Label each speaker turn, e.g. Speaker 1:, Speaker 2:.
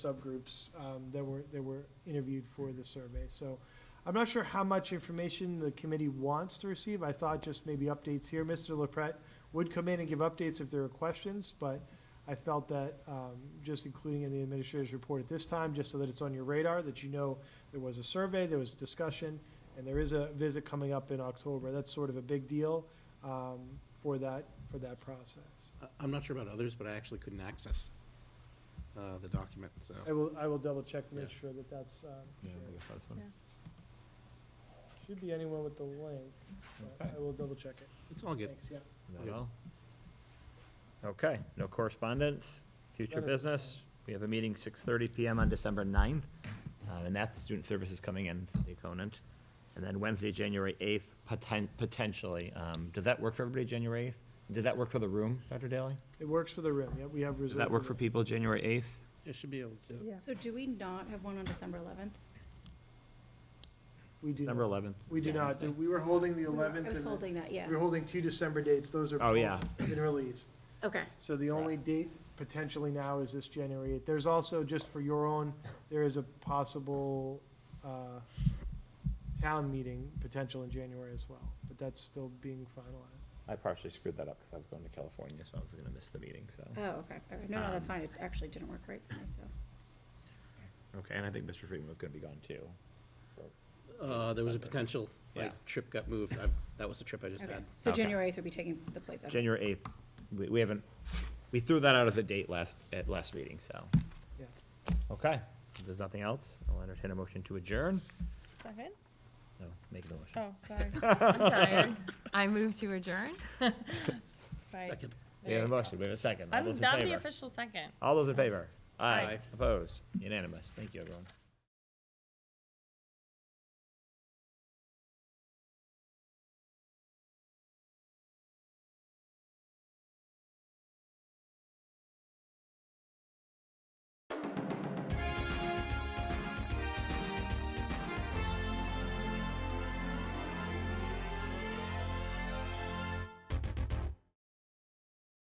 Speaker 1: subgroups um, that were, that were interviewed for the survey. So I'm not sure how much information the committee wants to receive. I thought just maybe updates here. Mr. LaPret would come in and give updates if there were questions, but I felt that um, just including in the administrator's report at this time, just so that it's on your radar, that you know there was a survey, there was discussion, and there is a visit coming up in October. That's sort of a big deal um, for that, for that process.
Speaker 2: I- I'm not sure about others, but I actually couldn't access uh, the document, so.
Speaker 1: I will, I will double check to make
Speaker 2: Yeah.
Speaker 1: sure that that's, um,
Speaker 3: Yeah, I think it's that's one.
Speaker 1: should be anyone with the link. but I
Speaker 3: Okay.
Speaker 1: will double check it.
Speaker 2: It's all good.
Speaker 1: Thanks, yeah.
Speaker 3: Is
Speaker 2: Yeah.
Speaker 3: that all? Okay, no correspondence, future
Speaker 1: None at this
Speaker 3: business. We have a meeting six thirty PM on December ninth, uh, and that's student services coming in from the Conant. And then Wednesday, January eighth, poten- potentially. Um, does that work for everybody, January eighth? Does that work for the room, Dr. Daly?
Speaker 1: It works for the room, yeah, we have reserved.
Speaker 3: Does that work
Speaker 1: the
Speaker 3: for
Speaker 1: room.
Speaker 3: people, January eighth?
Speaker 2: It should be able to.
Speaker 4: Yeah.
Speaker 5: So do we not have one on December 11th?
Speaker 1: We do,
Speaker 3: December
Speaker 1: not-
Speaker 3: eleventh?
Speaker 1: we do not, do- we were holding the eleventh.
Speaker 5: I was holding that, yeah.
Speaker 1: We were holding two December dates, those are.
Speaker 3: Oh, yeah.
Speaker 1: both Been released.
Speaker 5: Okay.
Speaker 1: So the only date potentially now is this January eighth. There's also, just for your own, there is a possible, uh, town meeting potential in January as well, but that's still being finalized.
Speaker 3: I partially screwed that up because I was going to California, so I was gonna miss the meeting, so.
Speaker 5: Oh, okay. All right. No, no, that's
Speaker 3: Um,
Speaker 5: fine. It actually didn't work right for me, so.
Speaker 3: Okay, and I think Mr. Friedman was gonna be gone too.
Speaker 2: Uh, There was a potential, like,
Speaker 3: Yeah.
Speaker 2: trip got moved. I've- That was the trip I just
Speaker 5: Okay.
Speaker 2: had.
Speaker 5: So
Speaker 3: Okay.
Speaker 5: January 8th would be taking the place of.
Speaker 3: January eighth, we, we haven't, we threw that out as a date last, at last meeting, so.
Speaker 1: Yeah.
Speaker 3: Okay, if there's nothing else, I'll entertain a motion to adjourn.
Speaker 4: Second?
Speaker 3: No, make the motion.
Speaker 4: Oh, sorry.
Speaker 6: I'm tired. I move to adjourn.
Speaker 4: Right.
Speaker 2: Second.
Speaker 3: We have a motion, we have a second. All
Speaker 4: I'm
Speaker 3: those in
Speaker 4: not the
Speaker 3: favor?
Speaker 4: official second.
Speaker 3: All those in favor?
Speaker 4: Aye.
Speaker 3: Opposed? Unanimous. Thank you, everyone.